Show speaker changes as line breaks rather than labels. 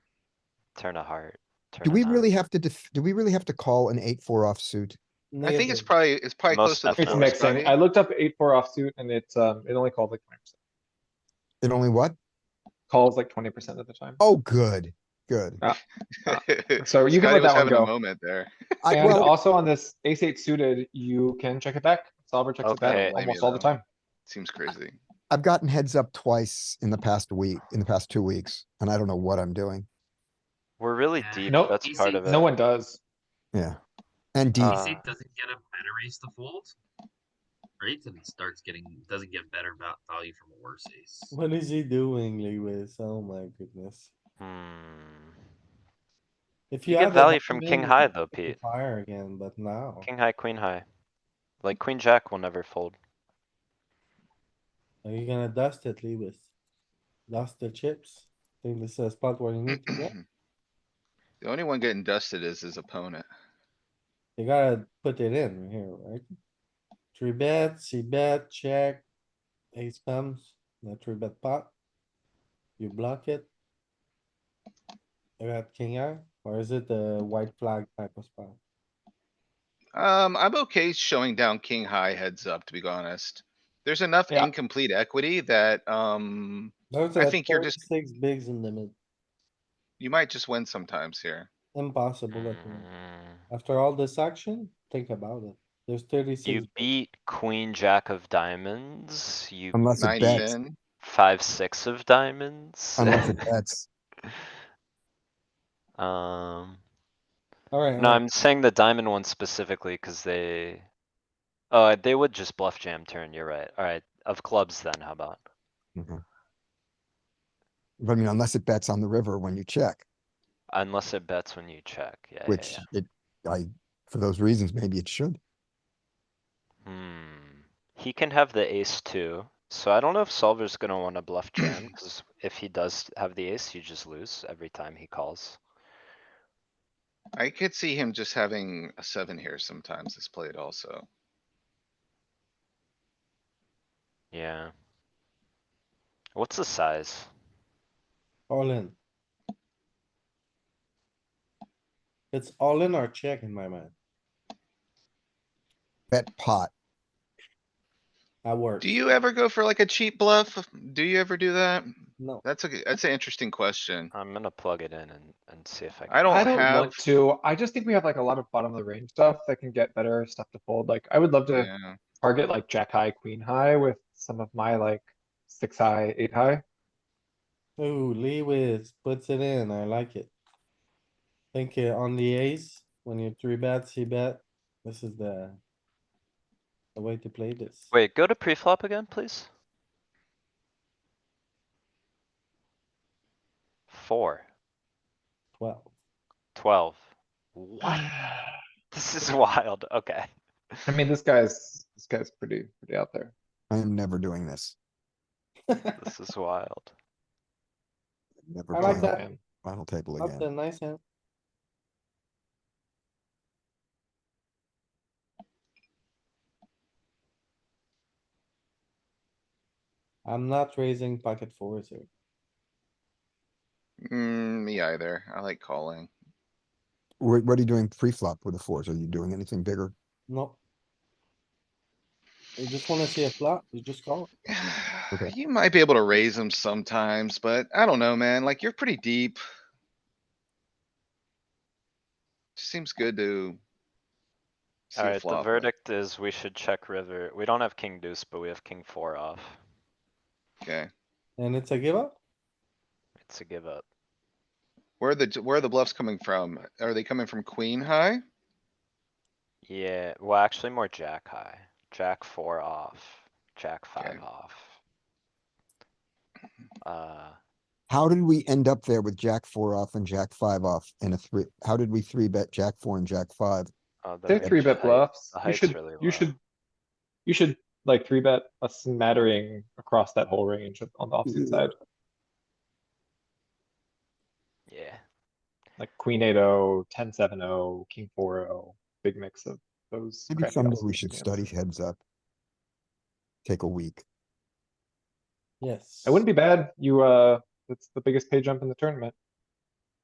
turn a heart. turn
Do
a
we
nine.
really have to, def- do we really have to call an eight, four offsuit?
I think it's probably, it's probably
Most
close to the
definitely.
It's
fours,
mixing.
right?
I looked up eight, four offsuit and it's, um, it only called like twenty percent.
It only what?
Calls like twenty percent of the time.
Oh, good, good.
So
Scotty
you can let
was
that one
having a
go.
moment there.
I,
And
well,
also on this ace eight suited, you can check it back. Solver checks it
Okay.
back almost all the time.
Seems crazy.
I've gotten heads up twice in the past week, in the past two weeks, and I don't know what I'm doing.
We're really
Yeah.
deep,
Nope.
that's part of it.
No one does.
Yeah. And deep,
Uh,
Ace eight doesn't get a better ace to fold, right? And it starts getting doesn't get better va- value from a worse ace.
What is he doing, Lewis? Oh my goodness.
Hmm.
If
You
you
get
have a
value from
hand,
king
you
high
can
though,
hit the
Pete.
Fire again, but now,
King high, queen high. Like queen jack will never fold.
are you gonna dust it, Lewis? Dust the chips? Think this is a spot where you need to go?
The only one getting dusted is his opponent.
You gotta put it in here, right? Three bet, C bet, check. Ace comes, the three bet pot. You block it. You got king eye, or is it the white flag type of spot?
Um, I'm okay showing down king high heads up, to be honest. There's enough
Yeah.
incomplete equity that, um,
Those
I
are
think you're just-
Six bigs in the mid,
you might just win sometimes here.
impossible. I think.
Mm.
After all this action, think about it. There's thirty-six,
You beat queen jack of diamonds, you
unless it
Nine
bets,
in,
five, six of diamonds.
unless it bets.
Um,
alright.
no, I'm saying the diamond one specifically cuz they. Oh, they would just bluff jam turn, you're right. Alright, of clubs then, how about?
Mhm. But I mean, unless it bets on the river when you check,
Unless it bets when you check, yeah, yeah,
which
yeah.
it, I, for those reasons, maybe it should.
Hmm, he can have the ace too, so I don't know if solver's gonna wanna bluff jam, cuz if he does have the ace, you just lose every time he calls.
I could see him just having a seven here sometimes This played also.
Yeah. What's the size?
All in. It's all in or check in my mind,
Bet pot.
I work.
Do you ever go for like a cheap bluff? Do you ever do that?
No,
That's a, g- that's an interesting question.
I'm gonna plug it in and, and see if I can.
I don't
I don't
have,
want to. I just think we have like a lot of bottom of the range stuff that can get better stuff to fold. Like I would love to
yeah,
target like jack high, queen high with some of my like six high, eight high.
ooh, Lewis puts it in, I like it. Think uh, on the ace, when you three bet, C bet, this is the. The way to play this.
Wait, go to pre-flop again, please. Four,
Well,
twelve. What? This is wild, okay.
I mean, this guy's, this guy's pretty, pretty out there.
I am never doing this.
This is wild.
Never
I like
playing
that.
Man.
final table
that's
again.
a nice hand. I'm not raising pocket fours here.
mm, me either. I like calling.
What, what are you doing pre-flop with the fours? Are you doing anything bigger?
No. You just wanna see a flop, you just call. it.
Okay.
You might be able to raise them sometimes, but I don't know, man. Like, you're pretty deep. Seems good to. see a
Alright, the
flop, but
verdict is we should check river. We don't have king deuce, but we have king four off.
Okay,
And it's a give up?
It's a give up.
where are the, where are the bluffs coming from? Are they coming from queen high?
Yeah, well, actually more jack high. Jack four off, jack five off. Uh,
How did we end up there with jack four off and jack five off and a three? How did we three bet jack four and jack five?
oh, the
They're
range
three bet
height-
bluffs.
the
You
height's
should,
really low.
you should, you should like three bet a smattering across that whole range on the offsuit side,
Yeah,
like queen eight oh, ten seven oh, king four oh, big mix of those.
Maybe
crappy
someday we
offsuit
should
hands.
study heads up. Take a week.
Yes.
It wouldn't be bad. You, uh, it's the biggest pay jump in the tournament.